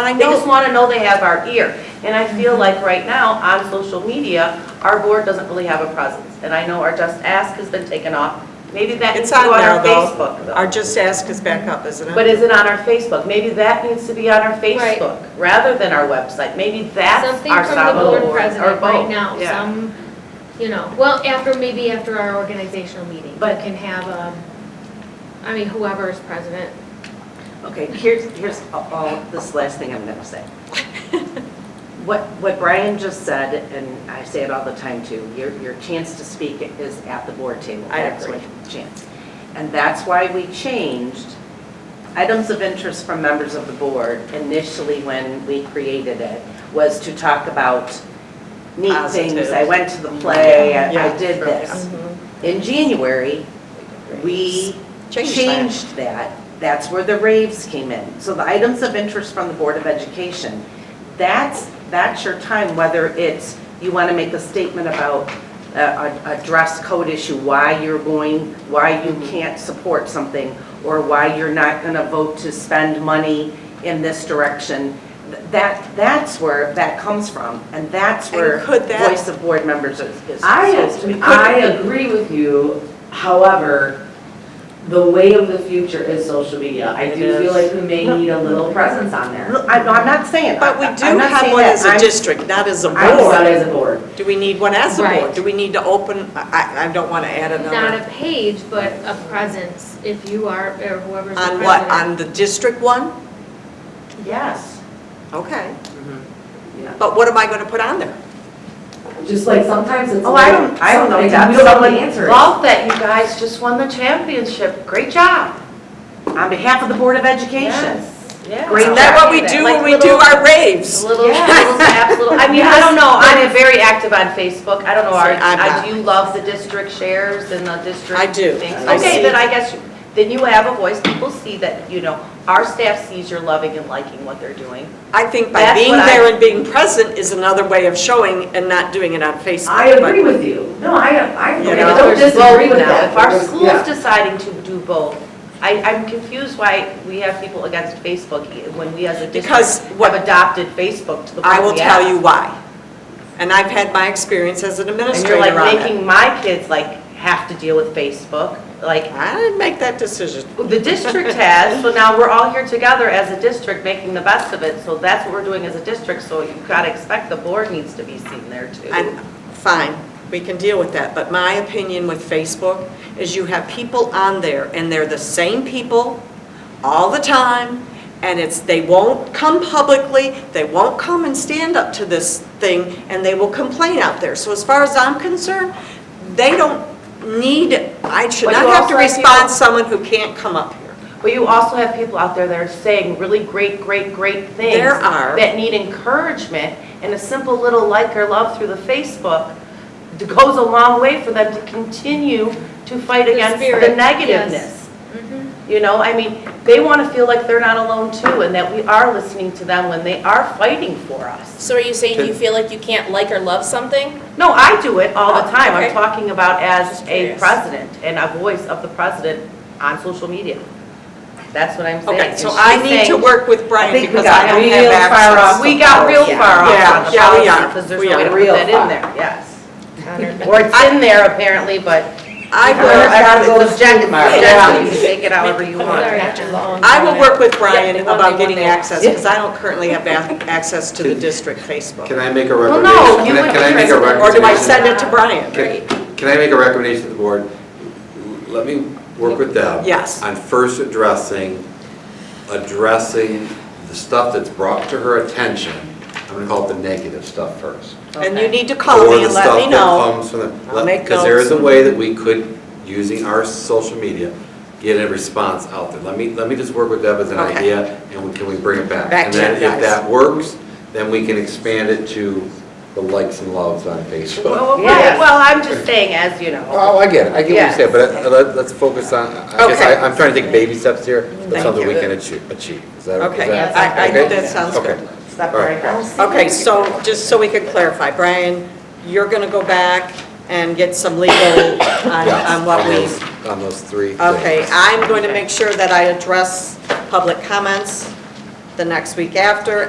I Mm-hmm. They just know, want to know they have our ear. And I feel like right now, on social media, our board doesn't really have a presence. And I know our Just Ask has been taken off. Maybe that needs it's to go on on there our though. Facebook. Our though. Just Ask is back up, isn't it? But is it on our Facebook? Maybe that needs to be on our Right. Facebook rather than our website. Maybe that's Something our from the Sabo board board or president right both. now, Yeah. some, you know, well, after, maybe after our organizational meeting. You But- can have, um, I mean, whoever is president. Okay, here's, here's all, this last thing I'm gonna say. What, what Brian just said, and I say it all the time too, your, your chance to speak is at the board table. I That's agree. when you Chance. And that's why we changed items of interest from members of the board initially when we created it, was to talk about neat things. Positives. I went to the play, I Yeah. Mm-hmm. I did this. In January, we Change that. changed that. That's where the raves came in. So the items of interest from the Board of Education, that's, that's your time, whether it's, you want to make a statement about a, a- a dress code issue, why you're going, why you Mm-hmm. can't support something, or why you're not going to vote to spend money in this direction. Th- That, that's where that comes from, and that's And where could that- voice of board members is. is supposed to be. I, I agree with you, however, the way of the future is social media. I It do feel is. like we may need a little presence on there. Look, I'm I'm not saying. But we I'm do not have saying one that. as a I'm- district, not as a I'm not board. as a board. Do we need one as a board? Right. Do we need to open, I, I- I don't want to add Not another. a page, but a presence, if you are, or whoever's the On president. what, on the district one? Yes. Okay. Mm-hmm. Yeah. But what am I going to put on there? Just like sometimes it's. Oh, I don't- I don't know. something, That's We don't know something. the answer. Love that you guys just won the championship. Great job. On behalf of the Board of Education. Yeah. Great Is that what we do Like when we do little- our raves? Little, Yeah. little taps, little, I mean, I don't know, I am very active on Facebook, I don't know, are, See, I'm not. I do love the district shares and the district. I do. things. I see. Okay, then I guess, you- then you have a voice, people see that, you know, our staff sees you're loving and liking what they're doing. I think by That's being what I- there and being present is another way of showing and not doing it on Facebook. I agree with you. No, I, I You If know, don't there's disagree both with now, that. If our There's- school's yeah. deciding to do both, I, I'm confused why we have people against Facebook when we as a Because district what- have adopted Facebook to the point we I will tell have. you why. And I've had my experience as an And you're administrator like on it. making my kids like have to deal with Facebook, like, I didn't make that decision. The district has, so now we're all here together as a district, making the best of it, so that's what we're doing as a district, so you've got to expect the board needs to be seen there too. And, fine, we can deal with that, but my opinion with Facebook is you have people on there, and they're the same people all the time, and it's, they won't come publicly, they won't come and stand up to this thing, and they will complain out there. So as far as I'm concerned, they don't need, I should But not you have to also have respond people- someone who can't come up here. But you also have people out there that are saying really great, great, great things. There are. That need encouragement, and a simple little like or love through the Facebook d- goes a long way for them to continue to fight The against the spirit, yes. negativeness. Mm-hmm. Mhm. You know, I mean, they want to feel like they're not alone too, and that we are listening to them when they are fighting for us. So are you saying you feel like you can't like or love something? Oh, No, I do it all the time. I'm Okay. talking about as a curious. president and a voice of the president on social media. That's what I'm saying. Okay, so And I she's need to saying- work with Brian think we because got I don't real have far off. access. We got real Yeah. Yeah, far off on the yeah, we policy are. because there's We no way are to put real that far. in there, yes. Or it's in there apparently, but I it's will, objective, tomorrow. objective, you can take it however you want. Sorry. I will work with Brian about getting access, because I don't currently have ac- access to the district Can Facebook. I make a Well, recommendation? no, you Can I- would Can I make a present- recommendation? Or do I send it to Brian? Can- Can I make a recommendation to the board? Let me work with them. Yes. On first addressing, addressing the stuff that's brought to her attention. I'm going to call it the negative stuff first. And you need to call me and let me know. Or the stuff that comes I'll from the, make because there is a notes. way that we could, using our social media, get a response out there. Let me, let me just work with Deb as an Okay. idea, and we- can we bring it back? Back to And you then if guys. that works, then we can expand it to the likes and loves on Facebook. Well, Yes. right, well, I'm just saying as, you know. Oh, I get it, I get what Yes. you're saying, but uh, let- let's focus on, I guess, Okay. I- I'm trying to take baby steps here, Thank but something we you. can achieve, achieve. Is that is Okay, that- I, I okay? think that sounds Okay. good. Stop All right right. there. Okay, so, just so we could clarify, Brian, you're gonna go back and get some legal on, Yeah, on what we, those- On those three things. okay, I'm going to make sure that I address public comments the next week after,